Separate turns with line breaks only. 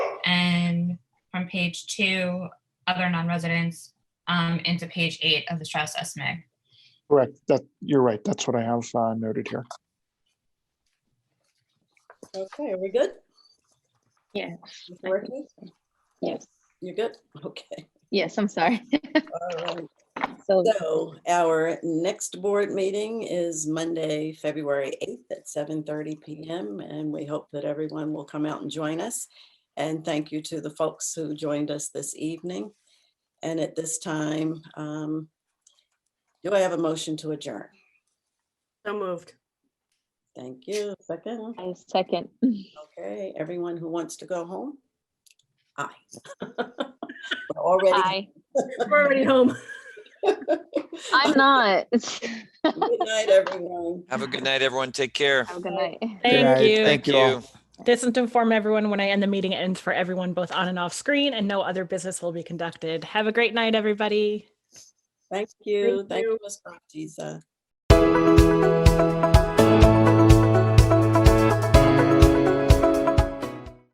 from page two, other non-residents, um, into page eight of the Strauss estimate.
Correct. That, you're right. That's what I have uh, noted here.
Okay, are we good?
Yeah.
Ms. Werke?
Yes,
You're good? Okay.
yes, I'm sorry.
All right.
So,
So our next board meeting is Monday, February 8th at 7:30 PM. And we hope that everyone will come out and join us. And thank you to the folks who joined us this evening. And at this time, um, do I have a motion to adjourn?
So moved.
Thank you. Second.
I second.
Okay, everyone who wants to go home? Aye. We're Already.
Hi,
We're already home.
I'm not.
Good night, everyone.
Have a good night, everyone. Take care.
Have a good night.
night.
Thank you.
Thank you all.
This is to inform everyone when I end the meeting, it ends for everyone, both on and off screen, and no other business will be conducted. Have a great night, everybody.
Thank you. Thank
Thank you.
you, Ms. Baptista.